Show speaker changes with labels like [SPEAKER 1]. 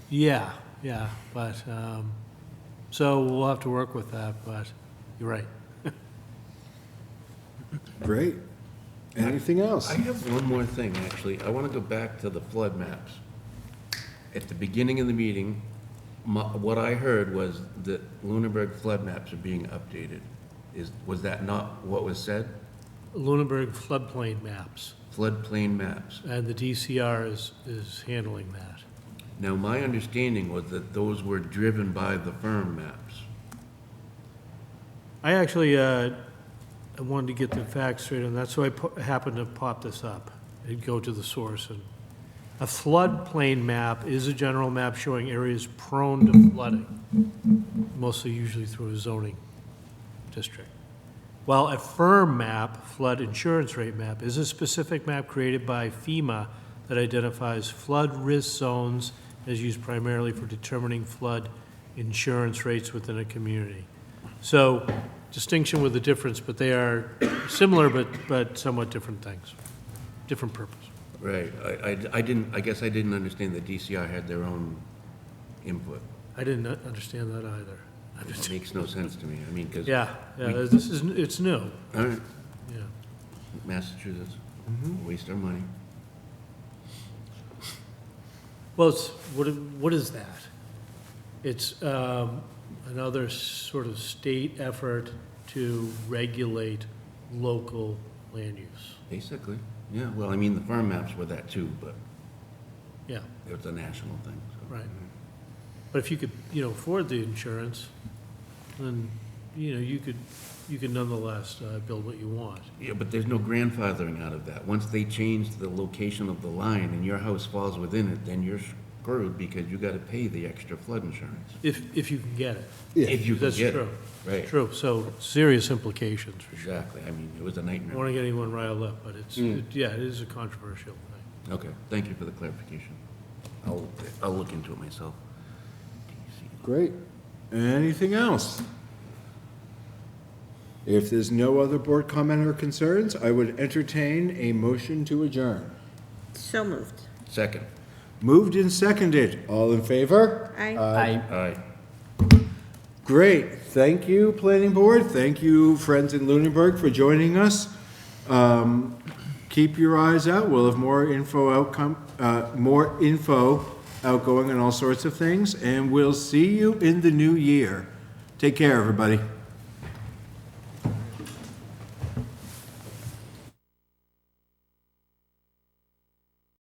[SPEAKER 1] Yeah, yeah, but, um, so we'll have to work with that, but you're right.
[SPEAKER 2] Great. Anything else?
[SPEAKER 3] I have one more thing, actually. I want to go back to the flood maps. At the beginning of the meeting, my, what I heard was that Lunenburg flood maps are being updated. Is, was that not what was said?
[SPEAKER 1] Lunenburg floodplain maps,
[SPEAKER 3] Floodplain maps.
[SPEAKER 1] and the DCR is, is handling that.
[SPEAKER 3] Now, my understanding was that those were driven by the firm maps.
[SPEAKER 1] I actually, uh, I wanted to get the facts straight on that, so I po- happened to pop this up and go to the source. And A floodplain map is a general map showing areas prone to flooding, mostly usually through a zoning district. While a firm map, flood insurance rate map, is a specific map created by FEMA that identifies flood risk zones and is used primarily for determining flood insurance rates within a community. So distinction with the difference, but they are similar but, but somewhat different things, different purpose.
[SPEAKER 3] Right. I, I, I didn't, I guess I didn't understand that DCR had their own input.
[SPEAKER 1] I didn't understand that either. I
[SPEAKER 3] It
[SPEAKER 1] just-
[SPEAKER 3] makes no sense to me. I mean, because.
[SPEAKER 1] Yeah, yeah, this is, it's new,
[SPEAKER 3] All right.
[SPEAKER 1] yeah.
[SPEAKER 3] Massachusetts, waste our money.
[SPEAKER 1] Well, it's, what, what is that? It's um, another sort of state effort to regulate local land use.
[SPEAKER 3] Basically, yeah, well, I mean, the farm maps were that too, but
[SPEAKER 1] Yeah,
[SPEAKER 3] it was a national thing, so.
[SPEAKER 1] right. But if you could, you know, afford the insurance, then, you know, you could, you could nonetheless uh, build what you want.
[SPEAKER 3] Yeah, but there's no grandfathering out of that. Once they change the location of the line and your house falls within it, then you're screwed because you gotta pay the extra flood insurance.
[SPEAKER 1] If, if you can get it.
[SPEAKER 3] If you can
[SPEAKER 1] That's
[SPEAKER 3] get it.
[SPEAKER 1] true.
[SPEAKER 3] Right,
[SPEAKER 1] True, so serious implications, for sure.
[SPEAKER 3] exactly. I mean, it was a
[SPEAKER 1] I don't want
[SPEAKER 3] nightmare.
[SPEAKER 1] to get anyone riled up, but it's,
[SPEAKER 3] Mm.
[SPEAKER 1] it- yeah, it is a controversial thing.
[SPEAKER 3] Okay, thank you for the clarification. I'll, I'll look into it myself.
[SPEAKER 2] Great. Anything else? If there's no other board comment or concerns, I would entertain a motion to adjourn.
[SPEAKER 4] So moved.
[SPEAKER 3] Second,
[SPEAKER 2] Moved and seconded. All in favor?
[SPEAKER 4] Aye.
[SPEAKER 3] aye.
[SPEAKER 2] Great. Thank you, planning board. Thank you, friends in Lunenburg, for joining us. Um, Keep your eyes out. We'll have more info outcome, uh, more info outgoing on all sorts of things, and we'll see you in the new year. Take care, everybody.